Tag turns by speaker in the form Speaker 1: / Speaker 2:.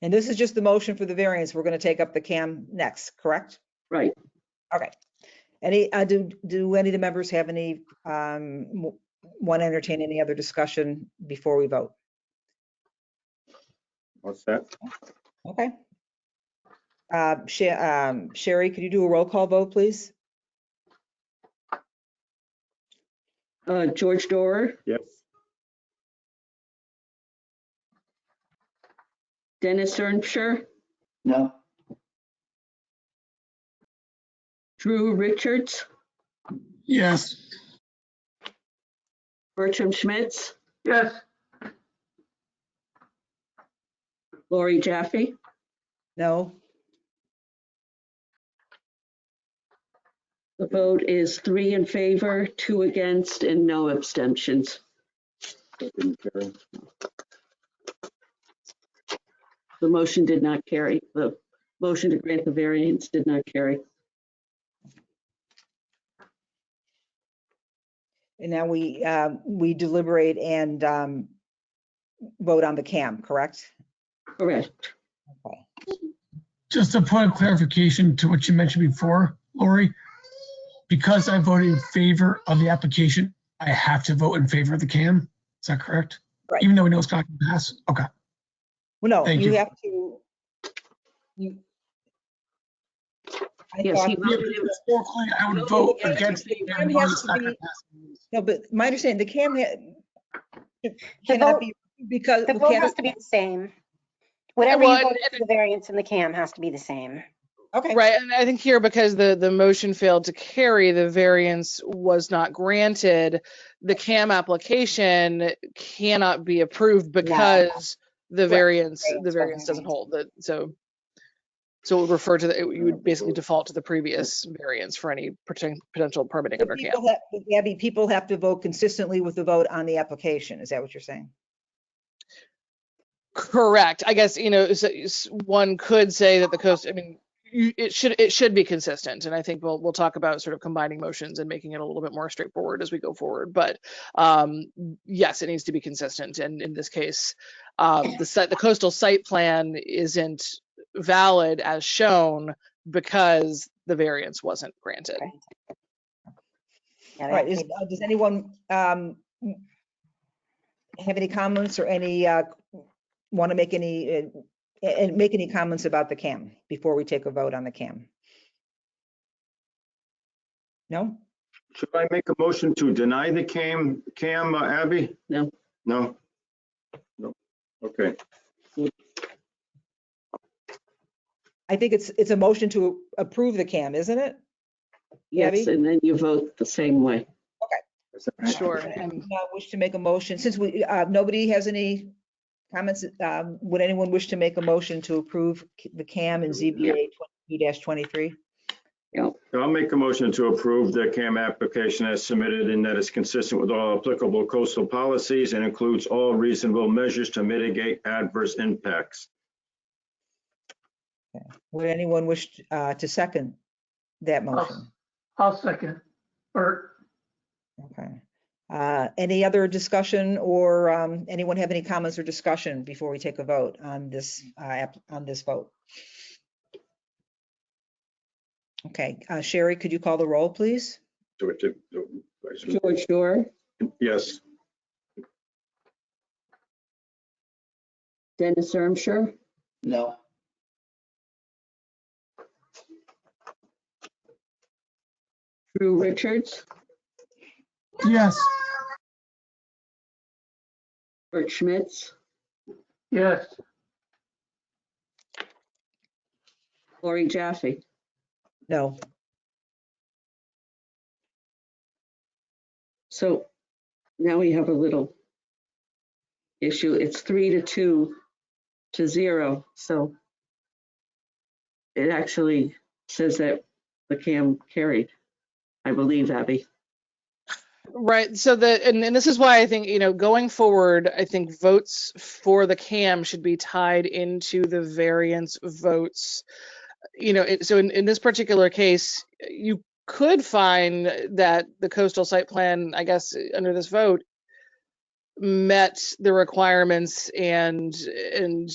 Speaker 1: And this is just the motion for the variance. We're going to take up the CAM next, correct?
Speaker 2: Right.
Speaker 1: Okay. Any, uh, do, do any of the members have any, um, want to entertain any other discussion before we vote?
Speaker 3: What's that?
Speaker 1: Okay. Uh, Sha- um, Sherry, could you do a roll call vote, please?
Speaker 2: Uh, George Dorr,
Speaker 3: Yes.
Speaker 2: Dennis Ermshire,
Speaker 4: No,
Speaker 2: Drew Richards,
Speaker 5: Yes,
Speaker 2: Bertram Schmitz,
Speaker 6: yes,
Speaker 2: Lori Jaffe,
Speaker 1: No?
Speaker 2: The vote is three in favor, two against, and no abstentions.
Speaker 3: that didn't carry.
Speaker 2: The motion did not carry. The motion to grant the variance did not carry.
Speaker 1: And now we, uh, we deliberate and, um, vote on the CAM, correct?
Speaker 2: Correct.
Speaker 1: Okay.
Speaker 5: just a point of clarification to what you mentioned before, Lori. Because I voted in favor of the application, I have to vote in favor of the CAM. Is that correct?
Speaker 1: Right.
Speaker 5: Even though we know it's not going to pass? Okay,
Speaker 1: Well, no,
Speaker 5: Thank
Speaker 1: you
Speaker 5: you.
Speaker 1: have to, you. I
Speaker 2: Yes,
Speaker 1: thought-
Speaker 2: he
Speaker 5: Yeah,
Speaker 2: voted in-
Speaker 5: historically, I
Speaker 2: No,
Speaker 5: would vote
Speaker 2: yeah,
Speaker 5: against.
Speaker 2: the
Speaker 5: it
Speaker 1: CAM
Speaker 5: because
Speaker 1: has
Speaker 5: it's
Speaker 1: to
Speaker 5: not gonna
Speaker 1: be-
Speaker 5: pass.
Speaker 1: No, but my understanding, the CAM ha-
Speaker 7: The
Speaker 1: cannot
Speaker 7: vote,
Speaker 1: be, because.
Speaker 7: the
Speaker 1: we
Speaker 7: vote
Speaker 1: can't-
Speaker 7: has to be the same. Whatever you
Speaker 8: well,
Speaker 7: vote
Speaker 8: and-
Speaker 7: for the variance in the CAM has to be the same.
Speaker 1: Okay,
Speaker 8: Right, and I think here, because the, the motion failed to carry, the variance was not granted, the CAM application cannot be approved because the variance, the
Speaker 7: Variance
Speaker 8: variance
Speaker 7: doesn't
Speaker 8: doesn't hold, that, so. So it would refer to, the it- you would basically default to the previous variance for any poten- potential permitting
Speaker 1: But
Speaker 8: under CAM.
Speaker 1: people ha- but Abby, people have to vote consistently with the vote on the application. Is that what you're saying?
Speaker 8: Correct. I guess, you know, so s- one could say that the coast, I mean, you- it should, it should be consistent. And I think we'll, we'll talk about sort of combining motions and making it a little bit more straightforward as we go forward. But um, yes, it needs to be consistent. And in this case, um, the site, the coastal site plan isn't valid as shown because the variance wasn't granted.
Speaker 7: Okay. Yeah,
Speaker 1: All
Speaker 7: they
Speaker 1: right,
Speaker 7: have
Speaker 1: is,
Speaker 7: to
Speaker 1: uh, does anyone um, have any comments or any, want to make any, uh, a- and make any comments about the CAM before we take a vote on the CAM? No?
Speaker 3: Should I make a motion to deny the CAM, CAM, uh, Abby?
Speaker 2: No.
Speaker 3: No? No. Okay,
Speaker 1: I think it's, it's a motion to approve the CAM, isn't it?
Speaker 2: Yes,
Speaker 1: Debbie?
Speaker 2: and then you vote the same way.
Speaker 8: Sure.
Speaker 1: Do
Speaker 8: And
Speaker 1: not Wish to make a motion, since we, uh, nobody has any comments, um, would anyone wish to make a motion to approve c- the CAM and ZBA 22-23?
Speaker 3: So I'll make a motion to approve the CAM application as submitted and that is consistent with all applicable coastal policies and includes all reasonable measures to mitigate adverse impacts.
Speaker 1: Would anyone wish uh, to second that motion?
Speaker 6: I'll second. Bert,
Speaker 1: Okay. Uh, Any other discussion or um, anyone have any comments or discussion before we take a vote on this, uh, app- on this vote? Okay, uh, Sherry, could you call the roll, please?
Speaker 3: Do it to- do it.
Speaker 2: George Dorr,
Speaker 3: Yes,
Speaker 2: Dennis Ermshire,
Speaker 4: no,
Speaker 2: Drew Richards,
Speaker 5: Yes,
Speaker 2: Bert Schmitz,
Speaker 6: yes,
Speaker 2: Lori Jaffe.
Speaker 1: No,
Speaker 2: So now we have a little issue. It's three to two to zero, so it actually says that the CAM carried, I believe, Abby.
Speaker 8: Right. So the and, and this is why I think, you know, going forward, I think votes for the CAM should be tied into the variance votes. You know, it, so in, in this particular case, you could find that the coastal site plan, I guess, under this vote, met the requirements and and